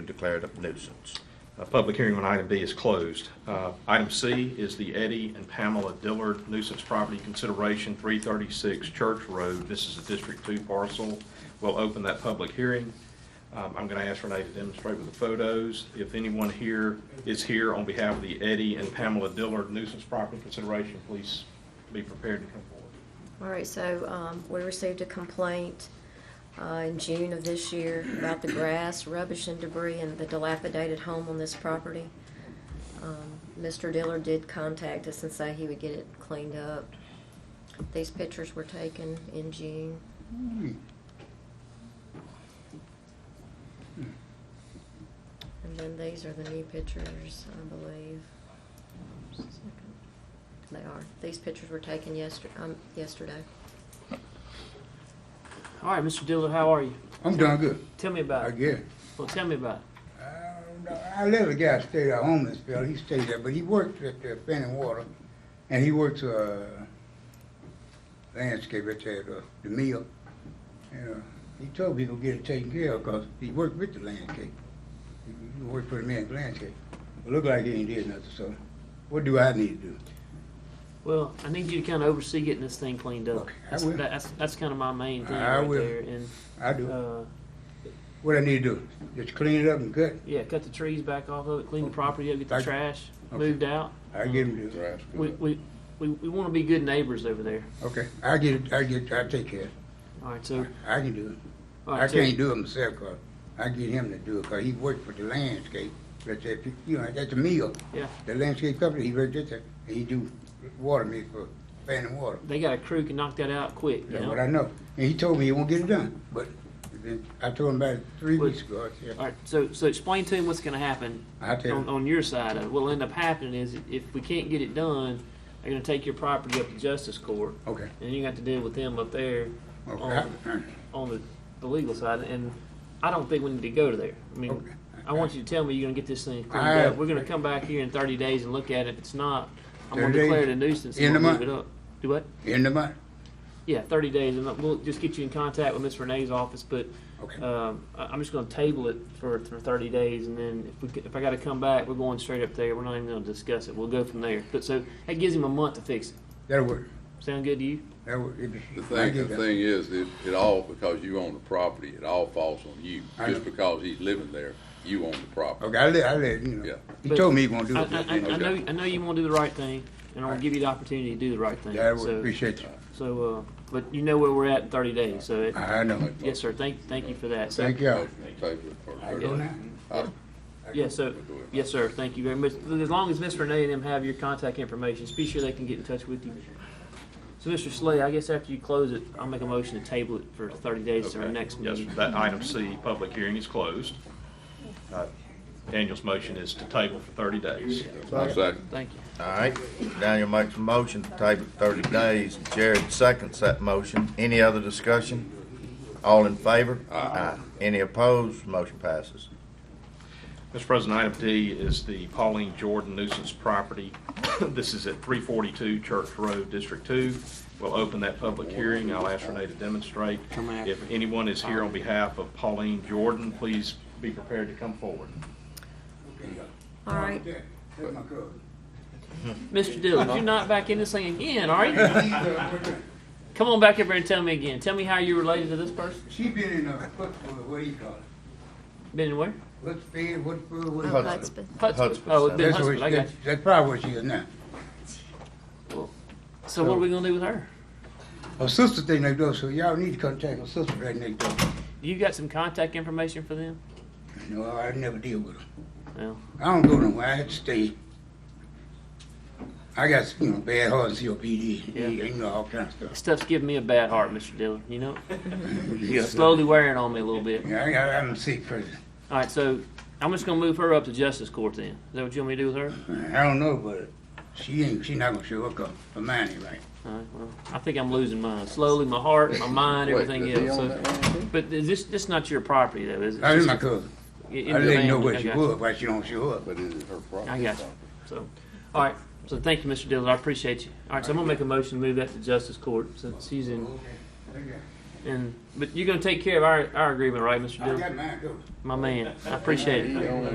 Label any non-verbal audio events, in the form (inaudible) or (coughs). declared a nuisance. Uh, Public hearing on item B is closed. Uh, Item C is the Eddie and Pamela Dillard nuisance property consideration, 336 Church Road. This is a District 2 parcel. We'll open that public hearing. Um, I'm going to ask Renee to demonstrate with the photos. If anyone here is here on behalf of the Eddie and Pamela Dillard nuisance property consideration, please be prepared to come forward. All right, so um, we received a complaint uh, in June of this year about the grass, rubbish, and debris in the dilapidated home on this property. Um, Mr. Dillard did contact us and say he would get it cleaned up. These pictures were taken in June. And then these are the new pictures, I believe. Just a second. They are. These pictures were taken yester- um, yesterday. All right, Mr. Dillard, how are you? I'm doing good, Tell me I about it. guess. Well, tell me about it. Uh, I let a guy stay there, a homeless fella, he stayed there, but he worked at the Penny Water, and he works, uh, landscape at the, uh, the mill. And, uh, he told me he gonna get it taken care of, cause he worked with the landscape. He he worked for the man's landscape. It looked like he ain't did nothing, so what do I need to do? Well, I need you to kind of oversee getting this thing cleaned up. Okay, I That's, will. that's, that's kind of my main thing I right will. there. And I do, uh, what I need to do, just clean it up and cut, yeah, cut the trees back off of it, clean the property up, get the Okay. trash Okay. moved out. I get him to, We we, we, we want to be good neighbors over there. okay, I get it, I get, I take care of it, All right, so I can do it. all right, I so, can't do it myself, 'cause I get him to do it, 'cause he worked for the landscape, that's at, you know, that's a meal. Yeah. The landscape company, he worked at the, and he do water meal for Fanning Water, They got a crew can knock that out quick. You that's know? what I know. And he told me he won't get it done, but then I told him about it three Well- weeks ago, I said, All right, so so explain to him what's going to happen I tell on, him, on your side of it. What'll end up happening is if we can't get it done, they're going to take your property up to justice court, okay, and you got to deal with them up there. okay, on- I- (clears throat) on the, the legal side, and I don't think we need to go to there. I mean, Okay. I want you to tell me you're gonna get this thing cleaned I- up. We're gonna come back here in thirty days and look at it. If it's not, I'm gonna 30 days? declare it a nuisance and End we'll of move it month? up. Do what? in the month, Yeah, thirty days, and we'll just get you in contact with Miss Renee's office, but, okay, um, I, I'm just gonna table it for, for thirty days, and then if we, c- if I gotta come back, we're going straight up there. We're not even gonna discuss it. We'll go from there. But so, that gives him a month to fix it. that'll work, Sound good to you? that'll work. If- The I thing, get the that. thing is, it, it all, because you own the property, it all falls on you. I Just know. because he's living there, you own the property. Okay, I let, I let, you know, Yeah. he But- told me he gonna do I, it, I, I I know, I know you wanna do the right thing, and I'll Alright. give you the opportunity to do the right thing. that would, So- appreciate you, So, uh, but you know where we're at in thirty days, so it, I know, yes, sir, thank, thank you for that. So- thank y'all. Thank you for- I go now? Uh, Yeah, so, yes, sir, thank you very much. As long as Miss Renee and them have your contact information, just be sure they can get in touch with you. So, Mr. Slay, I guess after you close it, I'll make a motion to table it for thirty days to our Okay. next Yes, meeting. that item C, public hearing is closed. Uh, Daniel's motion is to table for 30 days. I'll second. Thank you. All right, Daniel makes a motion to table it thirty days, Jared seconds that motion. Any other discussion? All in favor? Aye. Any opposed? Motion passes. Mr. President, item D is the Pauline Jordan nuisance property. (coughs) This is at 342 Church Road, District 2. We'll open that public hearing. I'll ask Renee to demonstrate. If anyone is here on behalf of Pauline Jordan, please be prepared to come forward. All right, That's my cousin. Mr. Dillon, you're not back in this thing again, are you? Come on back up here and tell me again. Tell me how you're related to this person. She been in a football, what do you call it? Been where? What's fed, what's food, what do you Oh, call it? that's been- Hudson. Hudspeth, Oh, it's sir. been That's Hudson, what, I got that's, that's probably what she is now. you. So what are we gonna do with her? Her sister thing next door, so y'all need to contact her sister right next door. You got some contact information for them? No, I never deal with her. Well, I don't go nowhere, I had to stay. I got, you know, bad heart and COPD, Yeah. you know, all kinds of this stuff. stuff's giving me a bad heart, Mr. Dillon. (laughs) You know, it's slowly wearing on me a little bit. Yeah, I, I'm a sick person. All right, so I'm just gonna move her up to justice court then. Is that what you want me to do with her? I don't know, but she ain't, she not gonna show up, 'cause her mind ain't right. All right, well, I think I'm losing mine. Slowly, my heart, my mind, Wait, everything does he else. own So, that land too? but is this this not your property though, is it? That is my cousin. It- I it's didn't your know family. where I she got you. was, why she don't show up. But is it her property? I got you. So, all right. So thank you, Mr. Mm. Dillon. I appreciate you. All right, so I'm gonna make a motion to move that to justice court since she's in. Okay. And, but you're gonna take care of our, our agreement, right, Mr. I Dillon? got mine, though. My man, I appreciate it.